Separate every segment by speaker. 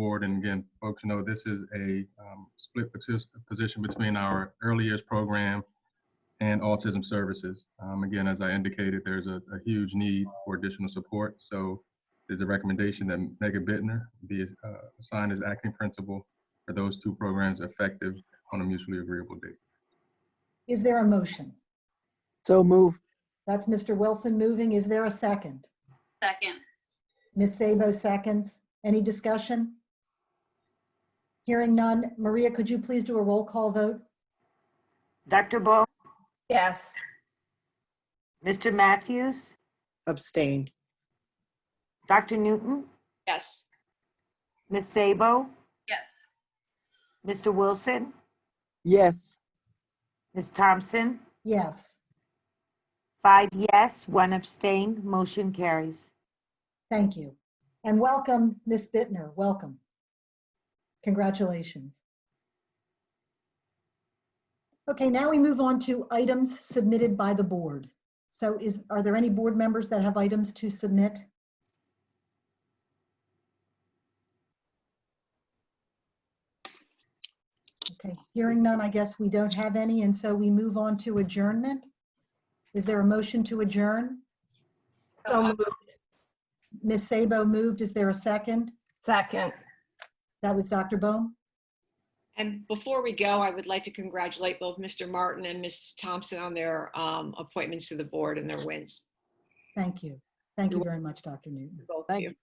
Speaker 1: board. And again, folks know this is a um, split partic- position between our early years program and autism services. Um, Again, as I indicated, there's a a huge need for additional support. So there's a recommendation that Megan Bittner be uh, assigned as acting principal for those two programs effective on a mutually agreeable date.
Speaker 2: Is there a motion?
Speaker 3: So move.
Speaker 2: That's Mr. Wilson moving. Is there a second?
Speaker 4: Second.
Speaker 2: Ms. Sabo seconds. Any discussion? Hearing none. Maria, could you please do a roll call vote?
Speaker 5: Dr. Bo,
Speaker 6: Yes.
Speaker 5: Mr. Matthews,
Speaker 3: Abstain.
Speaker 5: Dr. Newton,
Speaker 4: Yes.
Speaker 5: Ms. Sabo,
Speaker 4: Yes.
Speaker 5: Mr. Wilson,
Speaker 3: Yes.
Speaker 5: Ms. Thompson,
Speaker 2: Yes.
Speaker 5: five yes, one abstain, motion carries.
Speaker 2: Thank you. And welcome, Ms. Bittner. Welcome. Congratulations. Okay, now we move on to items submitted by the board. So is, are there any board members that have items to submit? Okay, hearing none, I guess we don't have any, and so we move on to adjournment. Is there a motion to adjourn?
Speaker 6: So moved.
Speaker 2: Ms. Sabo moved. Is there a second?
Speaker 6: Second.
Speaker 2: That was Dr. Bohm.
Speaker 7: And before we go, I would like to congratulate both Mr. Martin and Ms. Thompson on their um, appointments to the board and their wins.
Speaker 2: Thank you. Thank you very much, Dr. Newton.
Speaker 7: Both of
Speaker 3: Thank
Speaker 7: you.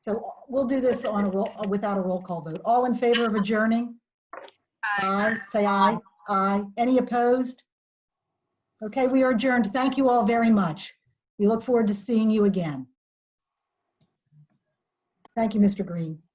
Speaker 2: So we'll do this on a roll, without a roll call vote. All in favor of adjourning? Aye. Say aye. Aye. Any opposed? Okay, we are adjourned. Thank you all very much. We look forward to seeing you again. Thank you, Mr. Green.